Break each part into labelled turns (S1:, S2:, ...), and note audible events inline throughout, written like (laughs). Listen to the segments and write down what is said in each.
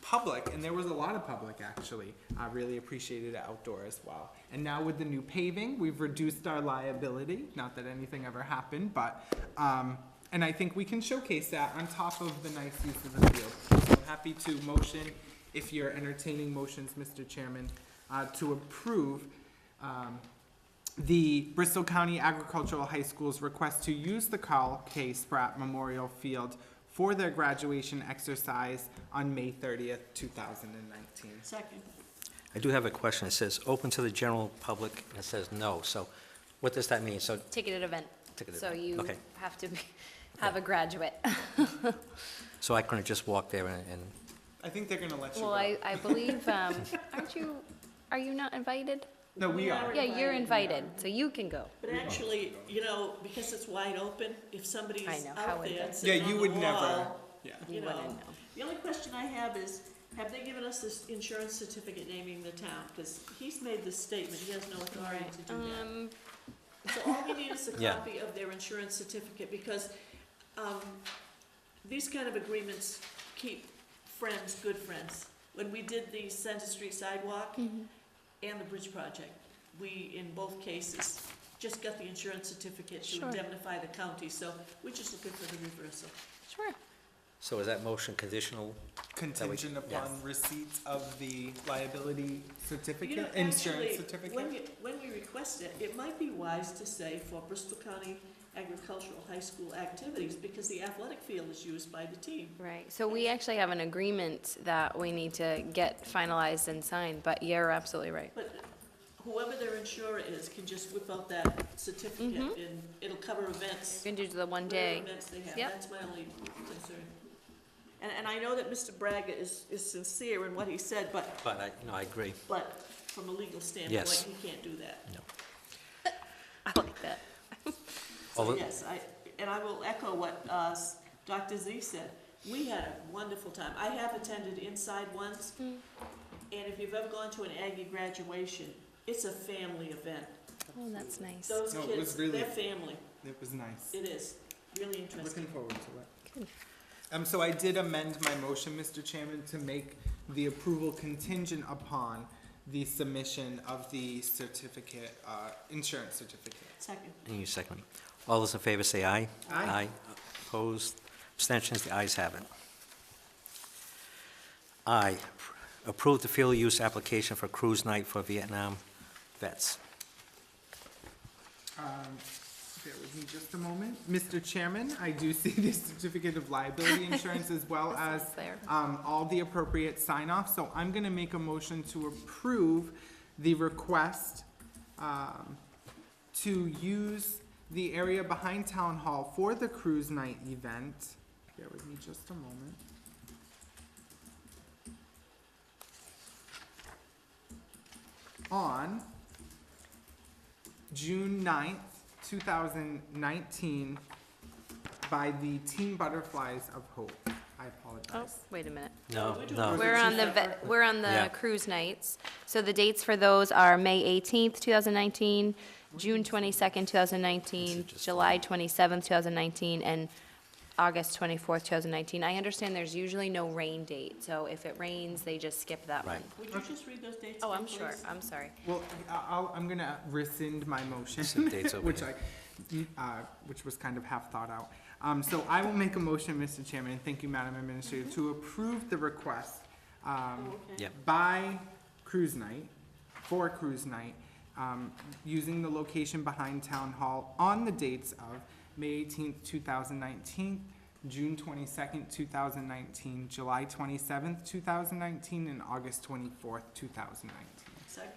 S1: public, and there was a lot of public actually, I really appreciated it outdoor as well. And now with the new paving, we've reduced our liability, not that anything ever happened, but, um, and I think we can showcase that on top of the nice use of the field. So I'm happy to motion, if you're entertaining motions, Mr. Chairman, uh, to approve, um, the Bristol County Agricultural High School's request to use the Carl K. Spratt Memorial Field for their graduation exercise on May thirtieth, two thousand and nineteen.
S2: Second.
S3: I do have a question. It says, "Open to the general public," and it says no. So what does that mean? So,
S4: Ticketed event.
S3: Ticketed
S4: So
S3: event,
S4: you
S3: okay.
S4: have to be- have
S3: (laughs)
S4: a graduate.
S3: so I couldn't just walk there and, and-
S1: I think they're gonna let you
S4: Well,
S1: go.
S4: I, I
S3: (laughs)
S4: believe, um, aren't you, are you not invited?
S1: No, we
S2: We
S1: are.
S2: are-
S4: Yeah, you're
S2: Invited,
S4: invited, so you can go.
S2: But actually, you know, because it's wide open, if somebody's
S4: I know, how
S2: out
S4: would
S2: there
S4: they?
S1: Yeah,
S2: sitting
S1: you
S2: on
S1: would
S2: the
S1: never,
S2: wall,
S1: yeah.
S2: you
S4: You wouldn't
S2: know.
S4: know.
S2: The only question I have is, have they given us this insurance certificate naming the town? Because he's made this statement, he has no authority to do that.
S4: Um,
S2: So all we need is a
S3: Yeah.
S2: copy of their insurance certificate, because, um, these kind of agreements keep friends, good friends. When we did the Center Street sidewalk and the bridge project, we, in both cases, just got the insurance certificate to
S4: Sure.
S2: indemnify the county, so we're just looking for the reversal.
S4: sure.
S3: so is that motion conditional?
S1: Contingent upon
S4: Yes.
S1: receipt of the liability
S2: You know,
S1: certificate,
S2: actually,
S1: insurance
S2: When
S1: certificate.
S2: you, when we request it, it might be wise to say for Bristol County Agricultural High School activities, because the athletic field is used by the team.
S4: Right, so we actually have an agreement that we need to get finalized and signed, but you're absolutely right.
S2: But whoever their insurer is can just whip out that certificate and it'll cover events,
S4: You can do the one
S2: whatever
S4: Mm-hmm. day.
S2: events they have.
S4: Yep.
S2: That's my only concern. And, and I know that Mr. Braga is, is sincere in what he said, but,
S3: But I, no, I agree.
S2: but from a legal
S3: Yes.
S2: standpoint, he can't do that.
S4: I like that.
S3: Although-
S2: So yes, I, and I will echo what uh, s- Dr. Z said. We had a wonderful time. I have attended Inside once,
S4: Mm.
S2: and if you've ever gone to an Aggie graduation, it's a family event.
S4: Oh, that's nice.
S2: Those
S1: No, it was
S2: kids,
S1: really-
S2: they're family.
S1: It was nice.
S2: It is, really
S1: Looking
S2: interesting.
S1: forward to it. Um, so I did amend my motion, Mr. Chairman, to make the approval contingent upon the submission of the certificate, uh, insurance certificate.
S2: Second.
S3: And you second. it. All those in favor say aye.
S1: Aye.
S3: Opposed, abstentions, the ayes have it. I, approve the field use application for cruise night for Vietnam vets.
S1: Um, Bear with me just a moment. Mr. Chairman, I do (laughs) see the certificate of liability insurance as well as
S4: (laughs) It's there.
S1: um, all the appropriate sign-off, so I'm gonna make a motion to approve the request um, to use the area behind Town Hall for the cruise night event. Bear with me just a moment. On June 9th, two thousand nineteen, by the Team Butterflies of Hope. I
S4: Oh,
S1: apologize.
S4: wait a minute.
S3: No,
S2: Would you
S3: no.
S1: approve?
S4: We're
S1: two
S4: on the, ve-
S2: separate?
S4: we're on
S3: Yeah.
S4: the cruise nights. So the dates for those are May 18th, 2019, June 22nd, 2019,
S3: This is just-
S4: July 27th, 2019, and August 24th, 2019. I understand there's usually no rain date, so if it rains, they just skip that one.
S3: Right.
S2: Would you just read those dates?
S4: Oh, I'm
S2: again,
S4: sure,
S2: please?
S4: I'm sorry.
S1: Well, I- I'll, I'm gonna rescind my motion,
S3: Some dates over
S1: which I,
S3: here.
S1: uh, which was kind of half thought out. Um, so I will make a motion, Mr. Chairman, and thank you, Madam Administrator, to approve the request, um,
S2: Mm-hmm. Oh, okay.
S3: Yeah.
S1: by Cruise Night, for Cruise Night, um, using the location behind Town Hall on the dates of May eighteenth, two thousand nineteen, June twenty-second, two thousand nineteen, July twenty-seventh, two thousand nineteen, and August twenty-fourth, two thousand nineteen.
S2: Second.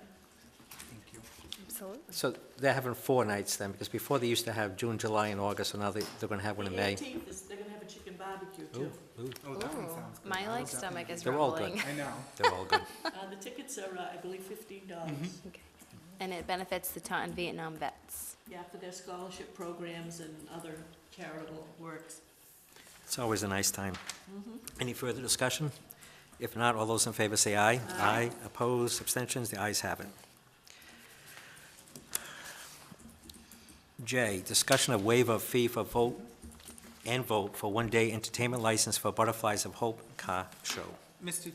S1: Thank you.
S4: Absolutely.
S3: So they're having four nights then, because before they used to have June, July, and August, so now they, they're gonna have one in
S2: The
S3: May.
S2: eighteenth is, they're gonna have a chicken barbecue
S3: Ooh,
S2: too.
S3: ooh,
S1: Oh, that one sounds good.
S4: My
S1: I will
S4: like stomach
S1: definitely
S4: is
S3: They're all good.
S4: rumbling.
S1: do- I
S4: (laughs)
S1: know.
S3: they're all good.
S2: Uh, the tickets are, uh, I believe, fifteen dollars.
S3: Mm-hmm.
S4: Okay. And it benefits the Taunton Vietnam vets.
S2: Yeah, for their scholarship programs and other charitable works.
S3: (laughs) It's always a nice time. Any further discussion? If not, all those in favor say aye. Aye. Opposed, abstentions, the ayes have it. J, discussion of waiver of fee for vote and vote for one-day entertainment license for Butterflies of Hope Car Show.
S1: Mr.